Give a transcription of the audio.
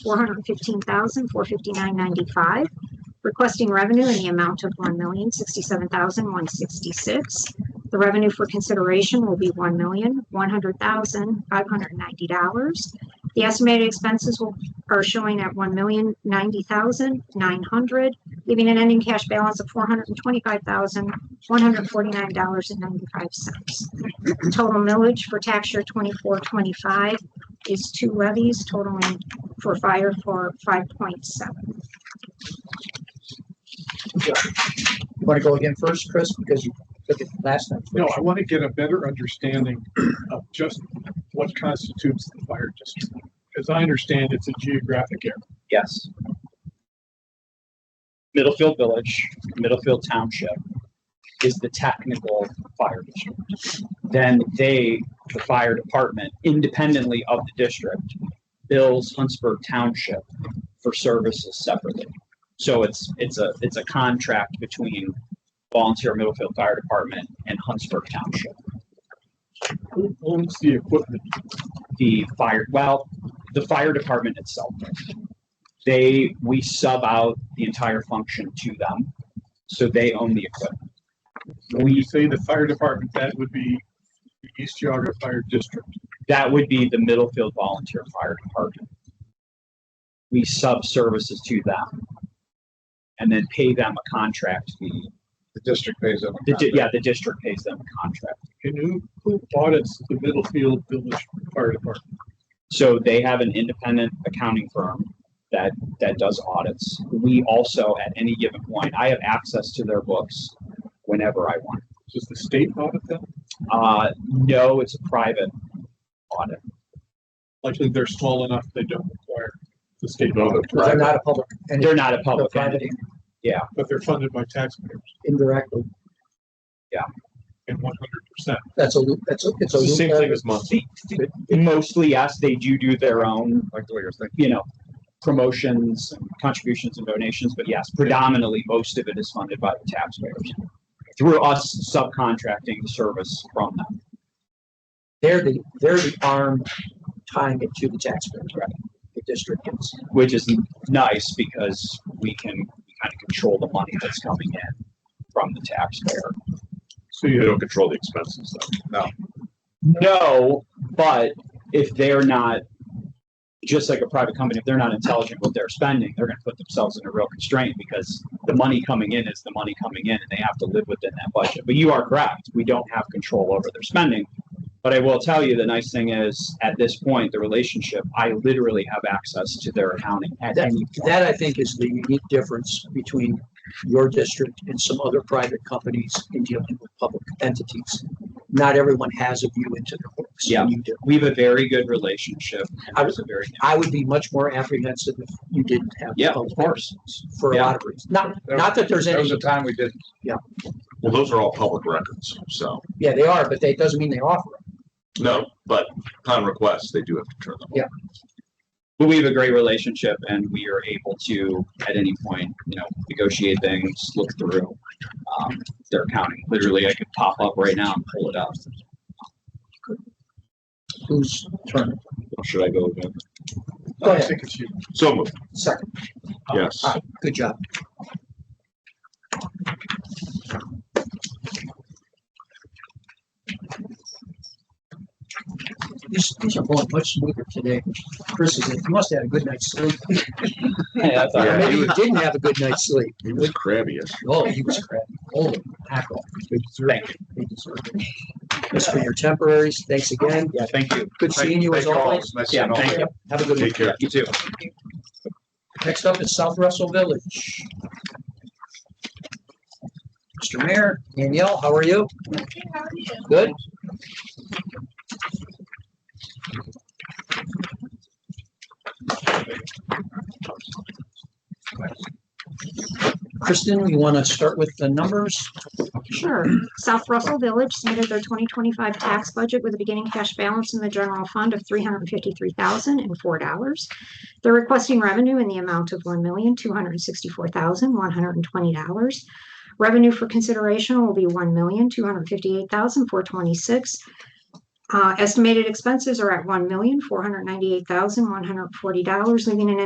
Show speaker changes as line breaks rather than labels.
four hundred fifteen thousand, four fifty-nine ninety-five, requesting revenue in the amount of one million, sixty-seven thousand, one sixty-six. The revenue for consideration will be one million, one hundred thousand, five hundred ninety dollars. The estimated expenses will, are showing at one million, ninety thousand, nine hundred, leaving an ending cash balance of four hundred and twenty-five thousand, one hundred forty-nine dollars and ninety-five cents. Total millage for tax year twenty-four, twenty-five is two levies totaling for fire for five point seven.
Want to go again first, Chris, because you took it last time?
No, I want to get a better understanding of just what constitutes the fire district. As I understand, it's a geographic area.
Yes. Middlefield Village, Middlefield Township is the technical fire district. Then they, the fire department, independently of the district, bills Huntsburg Township for services separately. So it's, it's a, it's a contract between volunteer Middlefield Fire Department and Huntsburg Township.
Who owns the equipment?
the fire, well, the fire department itself. They, we sub out the entire function to them, so they own the equipment.
When you
We,
say the fire department, that would be the East Yaga Fire District.
that would be the Middlefield Volunteer Fire Department. We sub services to them and then pay them a contract fee.
The district pays them.
The, di- yeah, the district pays them a contract.
And who, who audits the Middlefield Village Fire Department?
So they have an independent accounting firm that, that does audits. We also, at any given point, I have access to their books whenever I want.
Does the state audit them?
Uh, no, it's a private audit.
Likely they're small enough, they don't require the state
No,
audit,
Because they're not a public, and
They're not a
they're
public
private
entity
but they're funded by taxpayers
indirectly.
in one hundred percent.
That's a loop, that's, a- it's a loop.
as month.
Mostly, yes, they do do their own,
Like the way you're thinking.
you know, promotions, and contributions and donations, but yes, predominantly, most of it is funded by the taxpayers. Through us subcontracting the service from them.
They're the, they're the arm tying it to the taxpayers, right? The district is.
which is nice because we can kind of control the money that's coming in from the taxpayer.
So you
don't control the expenses though. No.
No, but if they're not, just like a private company, if they're not intelligent with their spending, they're gonna put themselves in a real constraint because the money coming in is the money coming in and they have to live within that budget. But you are correct, we don't have control over their spending. But I will tell you, the nice thing is, at this point, the relationship, I literally have access to their accounting at
That,
any point.
that I think is the unique difference between your district and some other private companies in dealing with public entities. Not everyone has a view into their works. and
Yeah.
You do.
we have a very good relationship. and
I
there's a very.
I would be much more apprehensive if you didn't have.
Yeah, of
public
course.
entities For a
Yeah.
lot of reasons. Not, not that there's
There
any.
was a time we didn't.
Yeah.
Well, those are all public records, so,
Yeah, they are, but that doesn't mean they offer them.
no, but upon request, they do have to turn them.
But we have a great relationship and we are able to, at any point, you know, negotiate things, look through um, their accounting. Literally, I could pop up right now and pull it up.
Who's turn?
Or Should I go again?
Go
I
ahead,
think it's you.
So moved,
second.
yes.
All right, Good job. These, these are going much smoother today. Chris is, you must have had a good night's sleep.
Yeah, that's all
Or
right.
Yeah.
Maybe
he
you
was-
didn't have a good night's sleep.
He was crabby as
Oh, he was crap. Holy tackle.
Thank you.
He deserved it. Chris, for your temporaries, thanks again.
Yeah, thank you.
Good seeing you as
Thank all.
always.
It's Nice
Yeah,
seeing all
thank
of
you.
you.
Have a good
Take
one.
care.
You too.
Next up is South Russell Village. Mr. Mayor, Danielle, how are you? Good? Kristen, you want to start with the numbers?
Sure. South Russell Village submitted their twenty twenty-five tax budget with a beginning cash balance in the general fund of three hundred fifty-three thousand and four dollars. They're requesting revenue in the amount of one million, two hundred sixty-four thousand, one hundred and twenty dollars. Revenue for consideration will be one million, two hundred fifty-eight thousand, four twenty-six. Uh, estimated expenses are at one million, four hundred ninety-eight thousand, one hundred forty dollars, leaving an